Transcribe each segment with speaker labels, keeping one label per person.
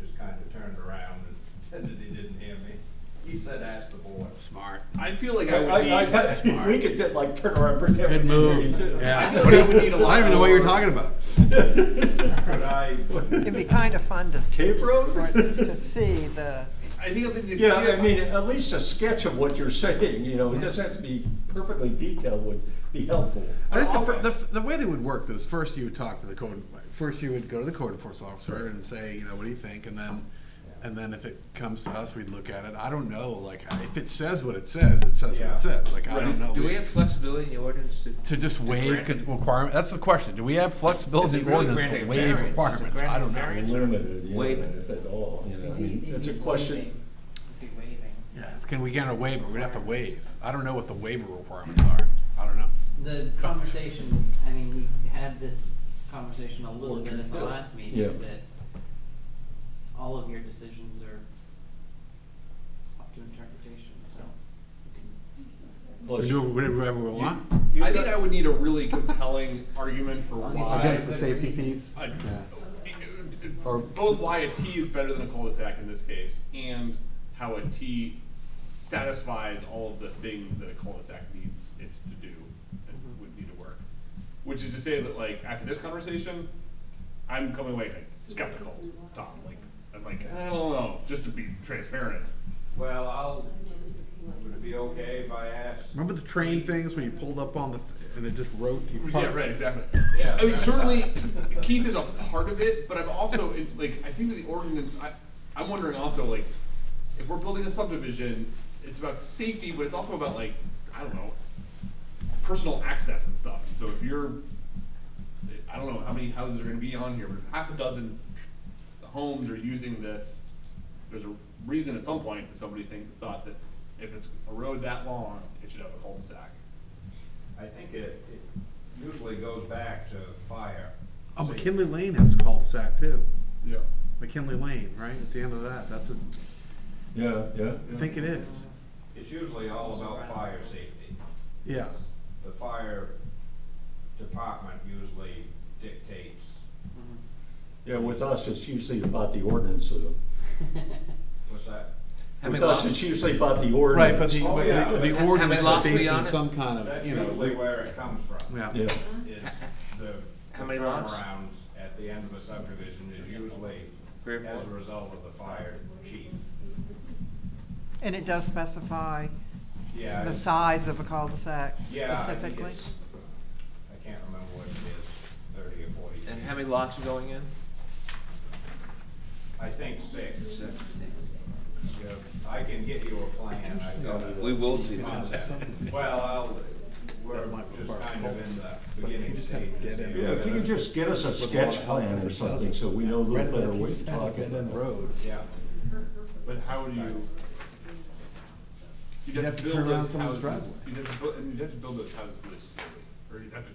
Speaker 1: pretended he didn't hear me. He said, ask the board.
Speaker 2: Smart.
Speaker 3: I feel like I would be.
Speaker 4: I, I,
Speaker 2: smart.
Speaker 4: we could just like turn around and
Speaker 2: Good
Speaker 4: pretend. we didn't hear
Speaker 2: move.
Speaker 4: you, too.
Speaker 2: Yeah.
Speaker 3: I feel like we need a lot
Speaker 2: I don't even know what you're
Speaker 3: more-
Speaker 2: talking about.
Speaker 1: Could I,
Speaker 5: It'd be kind of fun to, s-
Speaker 4: Cape Road?
Speaker 5: to see the,
Speaker 3: I think I'll need to see
Speaker 4: Yeah, I
Speaker 3: it.
Speaker 4: mean, at least a sketch of what you're saying, you know, it doesn't have to be perfectly detailed would be helpful.
Speaker 2: I think the, fir- the, the way they would work is first you would talk to the code, first you would go to the code enforcement officer and say, you know, what do you think? And then, and then if it comes to us, we'd look at it. I don't know, like, if it says what it says, it says what
Speaker 1: Yeah.
Speaker 2: it says. Like, I don't know.
Speaker 6: Do we have flexibility in the ordinance to?
Speaker 2: To just waive
Speaker 6: grant it?
Speaker 2: con- requirement, that's the question. Do we have flexibility
Speaker 6: Is it
Speaker 2: in
Speaker 6: really
Speaker 2: ordinance to
Speaker 6: granting
Speaker 2: waive
Speaker 6: variance? Is it
Speaker 2: requirements? I don't
Speaker 6: granting
Speaker 2: know.
Speaker 6: variance?
Speaker 4: Limited, you know,
Speaker 6: Waive it.
Speaker 4: if at all, you know, I
Speaker 7: It'd
Speaker 4: mean,
Speaker 7: be-
Speaker 4: it's a
Speaker 7: it'd be
Speaker 4: question.
Speaker 7: waiving. It'd be waiving.
Speaker 2: Yeah, it's- can we get a waiver? We'd have to waive. I don't know what the waiver requirements are. I don't know.
Speaker 7: The conversation, I mean, we had this conversation a little bit at the
Speaker 4: Yeah.
Speaker 7: last
Speaker 4: Yeah.
Speaker 7: meeting, that all of your decisions are up to interpretation, so you can
Speaker 2: We do whatever we want.
Speaker 3: I think I would need a really compelling argument for
Speaker 7: Long as
Speaker 3: why.
Speaker 7: Against the
Speaker 2: safety fees?
Speaker 3: I-
Speaker 2: Or-
Speaker 3: both why a T is better than a cul-de-sac in this case, and how a T satisfies all of the things that a cul-de-sac needs it to do and would need to work. Which is to say that, like, after this conversation, I'm coming away like, skeptical, Tom. Like, I'm like, I don't know, just to be transparent.
Speaker 1: well, I'll, would it be okay if I asked?
Speaker 2: Remember the train things when you pulled up on the, and it just wrote? you
Speaker 3: Yeah,
Speaker 2: parked?
Speaker 3: right, exactly.
Speaker 1: Yeah.
Speaker 3: I mean, certainly Keith is a part of it, but I'm also it, like I think that the ordinance. I, I'm wondering also like if we're building a subdivision, it's about safety, but it's also about like I don't know personal access and stuff. So if you're, I don't know how many houses are going to be on here, but if half a dozen homes are using this, there's a reason at some point that somebody think, thought that if it's a road that long, it should have a cul-de-sac.
Speaker 1: I think it, it usually goes back to fire.
Speaker 2: Oh,
Speaker 1: So you-
Speaker 2: McKinley Lane has a cul-de-sac too.
Speaker 3: Yeah.
Speaker 2: McKinley Lane, right, at the end of that, that's a,
Speaker 4: Yeah, yeah.
Speaker 2: I think it is.
Speaker 1: It's usually all about fire safety.
Speaker 2: Yeah,
Speaker 1: The fire department usually dictates,
Speaker 4: Yeah, with us, it's usually about the ordinance, though.
Speaker 1: what's that?
Speaker 6: How
Speaker 4: With
Speaker 6: many
Speaker 4: us,
Speaker 6: lots,
Speaker 4: it's usually about the ordinance.
Speaker 2: right, but the,
Speaker 1: Oh,
Speaker 2: but
Speaker 1: yeah. How
Speaker 2: the- the
Speaker 1: many
Speaker 2: ordinance
Speaker 6: lots were you on
Speaker 2: states
Speaker 6: it?
Speaker 2: some kind of,
Speaker 1: That's
Speaker 2: you know,
Speaker 1: usually where it comes from.
Speaker 2: yeah.
Speaker 4: Yeah,
Speaker 1: Is the the
Speaker 6: How many lots?
Speaker 1: turnarounds at the end of a subdivision is usually
Speaker 6: Three or
Speaker 1: as a
Speaker 6: four.
Speaker 1: result of the fire chief.
Speaker 5: and it does specify
Speaker 1: Yeah,
Speaker 5: the size of a cul-de-sac
Speaker 1: yeah, I think
Speaker 5: specifically.
Speaker 1: it's- I can't remember what it is, thirty or forty.
Speaker 6: and how many lots are going in?
Speaker 1: I think six. Yeah, I can get you a plan, I thought.
Speaker 6: We will see that.
Speaker 1: Well, I'll, we're just kind of in the beginning stages.
Speaker 2: dead end.
Speaker 1: here.
Speaker 4: if you could just get us a sketch plan or something, so we know a little better what you're talking about.
Speaker 2: road.
Speaker 1: Yeah,
Speaker 3: But how would you? You'd
Speaker 2: You'd
Speaker 3: have
Speaker 2: have to
Speaker 3: to build
Speaker 2: turn around
Speaker 3: those
Speaker 2: someone's
Speaker 3: houses,
Speaker 2: driveway.
Speaker 3: you'd have to build, and you'd have to build those houses really slowly, or you'd have to,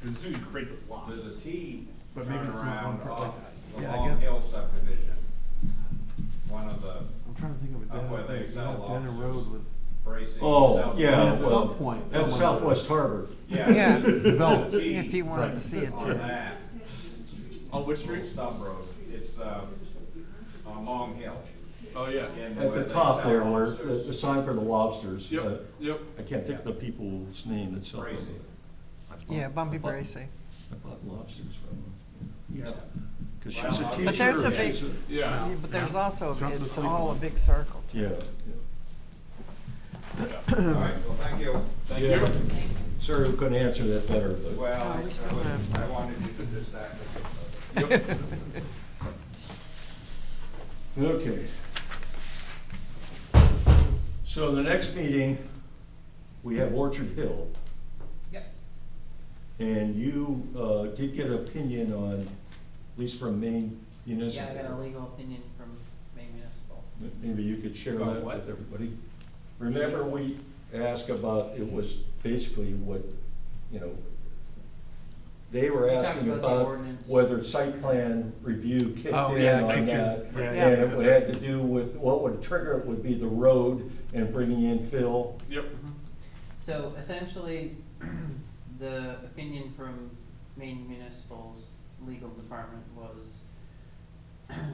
Speaker 3: because as soon as you create those
Speaker 1: there's a
Speaker 3: lots.
Speaker 1: T
Speaker 2: But maybe it's not on
Speaker 1: turnaround
Speaker 2: purpose.
Speaker 1: off the
Speaker 2: Yeah, I
Speaker 1: Long
Speaker 2: guess-
Speaker 1: Hill subdivision. One of the
Speaker 2: I'm trying to think of a
Speaker 1: Up where
Speaker 2: dead,
Speaker 1: they
Speaker 2: it's
Speaker 1: sell
Speaker 2: not dead end
Speaker 1: lobsters.
Speaker 2: road with,
Speaker 1: bracing.
Speaker 4: Oh,
Speaker 1: south-
Speaker 4: yeah,
Speaker 2: at
Speaker 4: well,
Speaker 2: some point,
Speaker 4: that's
Speaker 2: someone-
Speaker 4: Southwest Harbor.
Speaker 1: Yeah.
Speaker 5: Yeah.
Speaker 1: There's a T
Speaker 5: If you wanted to see it
Speaker 1: On
Speaker 5: too.
Speaker 1: that,
Speaker 3: On which
Speaker 1: little
Speaker 3: street?
Speaker 1: stub road, it's, uh, on Long Hill.
Speaker 3: Oh, yeah.
Speaker 1: again,
Speaker 4: At
Speaker 1: where
Speaker 4: the
Speaker 1: they
Speaker 4: top
Speaker 1: sell
Speaker 4: there, where, the,
Speaker 1: lobsters.
Speaker 4: the sign for the lobsters. uh,
Speaker 3: Yep, yep.
Speaker 4: I can't think of the people's name that's. up there.
Speaker 1: Bracing.
Speaker 5: Yeah, Bumpy Bracy.
Speaker 4: I bought lobsters from them.
Speaker 6: No.
Speaker 4: Cause
Speaker 1: Well,
Speaker 4: she's a teacher.
Speaker 1: But
Speaker 5: there's a
Speaker 4: she's
Speaker 5: big-
Speaker 1: uh,
Speaker 3: Yeah.
Speaker 5: But there's also,
Speaker 2: Something to
Speaker 5: it's
Speaker 2: sleep
Speaker 5: all a
Speaker 2: on.
Speaker 5: big circle.
Speaker 4: Yeah.
Speaker 1: All right, well, thank you.
Speaker 3: Thank
Speaker 4: Yeah.
Speaker 3: you.
Speaker 4: Sorry, we couldn't answer that better, but.
Speaker 1: Well, I
Speaker 5: Oh, we
Speaker 1: was-
Speaker 5: still have-
Speaker 1: I wanted you to just act.
Speaker 4: Okay. So the next meeting, we have Orchard Hill.
Speaker 7: Yep.
Speaker 4: And you, uh, did get an opinion on, at least from Maine
Speaker 7: Yeah, I got a
Speaker 4: Municipal.
Speaker 7: legal opinion from Maine Municipal.
Speaker 4: Maybe you could share
Speaker 3: About
Speaker 4: that
Speaker 3: what?
Speaker 4: with everybody. Remember, we asked about, it was basically what, you know, they were
Speaker 7: We talked
Speaker 4: asking
Speaker 7: about the
Speaker 4: about
Speaker 7: ordinance.
Speaker 4: whether site plan review kicked in
Speaker 2: Oh, yeah,
Speaker 4: on
Speaker 2: kicked in.
Speaker 4: that.
Speaker 2: Yeah,
Speaker 4: And
Speaker 2: yeah,
Speaker 4: it
Speaker 2: that's
Speaker 4: would- had to do with, what would trigger it would be the road and bringing in fill.
Speaker 3: Yep.
Speaker 7: So essentially, the opinion from Maine Municipal's legal department was